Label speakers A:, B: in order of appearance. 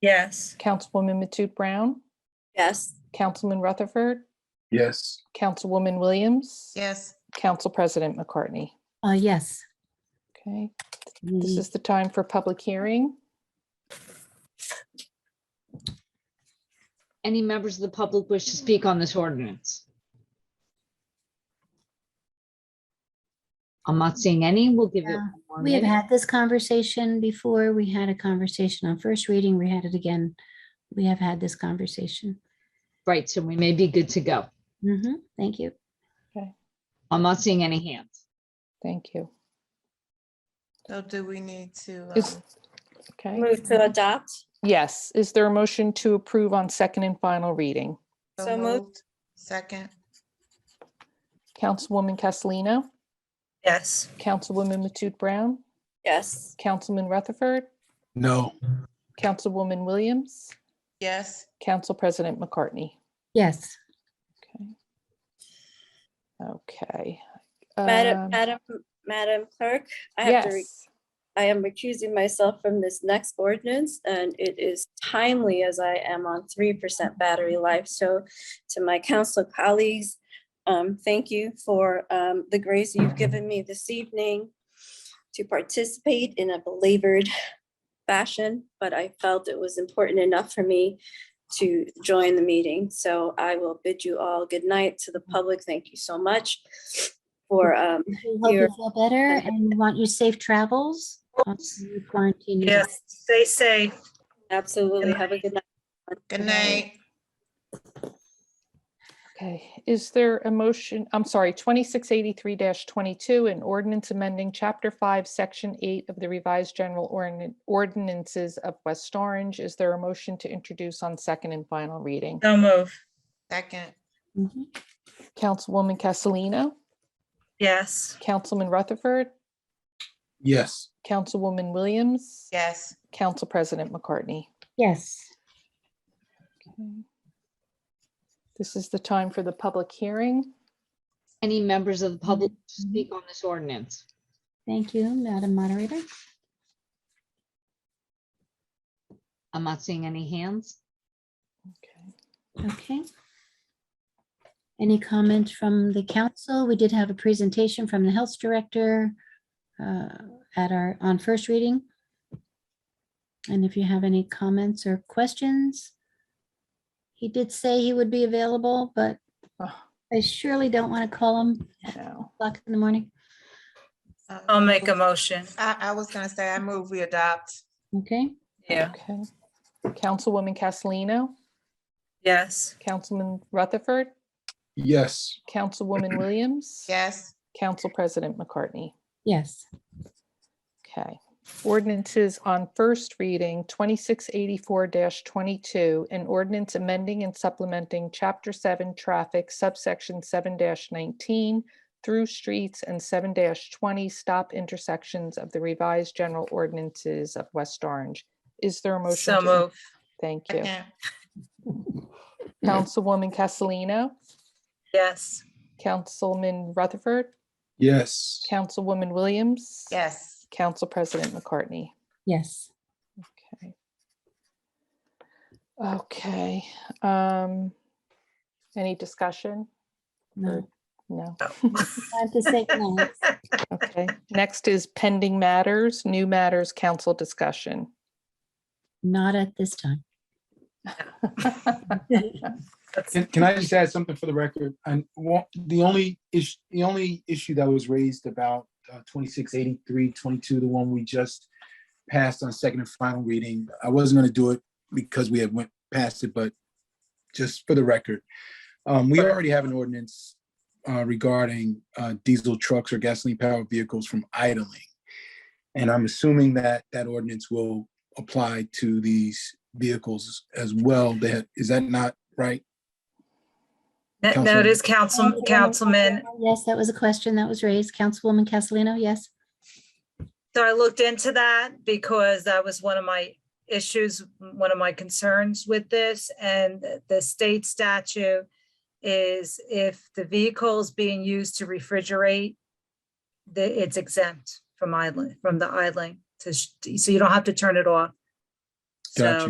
A: Yes.
B: Councilwoman Matute Brown,
C: Yes.
B: Councilman Rutherford,
D: Yes.
B: Councilwoman Williams.
E: Yes.
B: Council President McCartney.
F: Uh, yes.
B: Okay, this
F: The-
B: is the time for public hearing.
G: Any members of the public wish to speak on this ordinance? I'm not seeing any. We'll give it.
F: Yeah,
G: one more
F: We have
G: minute.
F: had this conversation before. We had a conversation on first reading. We had it again. We have had this conversation.
G: Right, so we may be good to go.
F: Mhm, Thank you.
G: I'm not seeing any hands.
B: Thank you.
E: So do we need to?
B: Is-
E: um,
B: Okay,
C: Move to adopt.
B: yes, is there a motion to approve on second and final reading?
C: So moved.
E: Second,
B: Councilwoman Castellino,
A: Yes.
B: Councilwoman Matute Brown,
C: Yes.
B: Councilman Rutherford,
D: No.
B: Councilwoman Williams,
E: yes.
B: Council President McCartney.
F: Yes.
B: Okay. Okay.
C: Madam,
B: um,
C: Madam, Madam Clerk, I have to, re-
B: Yes,
C: I am recusing myself from this next ordinance and it is timely as I am on three percent battery life. So to my council colleagues, um, thank you for, um, the grace you've given me this evening to participate in a belabored fashion, but I felt it was important enough for me to join the meeting. So I will bid you all good night to the public. Thank you so much for, um,
F: We hope you
C: Here.
F: feel better and we want you safe travels. while you quarantine yourself.
A: Yes. Stay safe.
C: absolutely have a good night.
E: Good night.
B: okay. Is there a motion, I'm sorry, 2683-22, an ordinance amending Chapter 5, Section 8 of the revised general Ordin- ordinances of West Orange? Is there a motion to introduce on second and final reading?
A: So move.
E: Second,
F: Mhm.
B: Councilwoman Castellino,
A: Yes.
B: Councilman Rutherford,
D: Yes.
B: Councilwoman Williams,
E: yes.
B: Council President McCartney.
F: Yes.
B: Okay. This is the time for the public hearing.
G: Any members of the public
F: Mm-hmm.
G: wish to speak on this ordinance?
F: Thank you, Madam Moderator.
G: I'm not seeing any hands.
B: Okay.
F: Okay. Any comment from the council? We did have a presentation from the health director uh, at our, on first reading. And if you have any comments or questions, he did say he would be available, but
B: Oh,
F: I surely don't want to call him at
B: no.
F: o'clock in the morning.
E: Um,
A: I'll make a motion.
E: I, I was gonna say, I move we adopt.
F: Okay,
A: Yeah.
B: Okay. Councilwoman Castellino,
A: Yes.
B: Councilman Rutherford,
D: Yes.
B: Councilwoman Williams.
E: Yes.
B: Council President McCartney.
F: yes.
B: Okay. Ordinances on first reading, 2684-22, an ordinance amending and supplementing Chapter 7 Traffic subsection 7-19 through streets and 7-20 stop intersections of the revised general ordinances of West Orange. Is there a motion?
A: So
B: to-
A: move.
B: Thank you.
E: Second,
B: Councilwoman Castellino,
A: Yes.
B: Councilman Rutherford,
D: Yes.
B: Councilwoman Williams.
E: yes.
B: Council President McCartney.
F: Yes.
B: Okay. Okay, um, any discussion?
F: No.
B: No,
F: Time to say goodnight.
B: okay. Next is pending matters, new matters, council discussion.
F: Not at this time.
D: Can, can I just add something for the record? And one, the only issue, the only issue that was raised about uh, twenty-six eighty-three, twenty-two, the one we just passed on second and final reading, I wasn't gonna do it because we had went past it, but just for the record, um, we already have an ordinance uh, regarding uh, diesel trucks or gasoline-powered vehicles from idling. And I'm assuming that that ordinance will apply to these vehicles as well. That, is that not right?
A: That no, it is Council, Councilman.
F: Yes, that was a question that was raised. Councilwoman Castellino, yes?
A: So I looked into that because that was one of my issues, one of my concerns with this. And the state statute is if the vehicle is being used to refrigerate, the, it's exempt from idling, from the idling to, sh- so you don't have to turn it off.
D: Gotcha.
A: So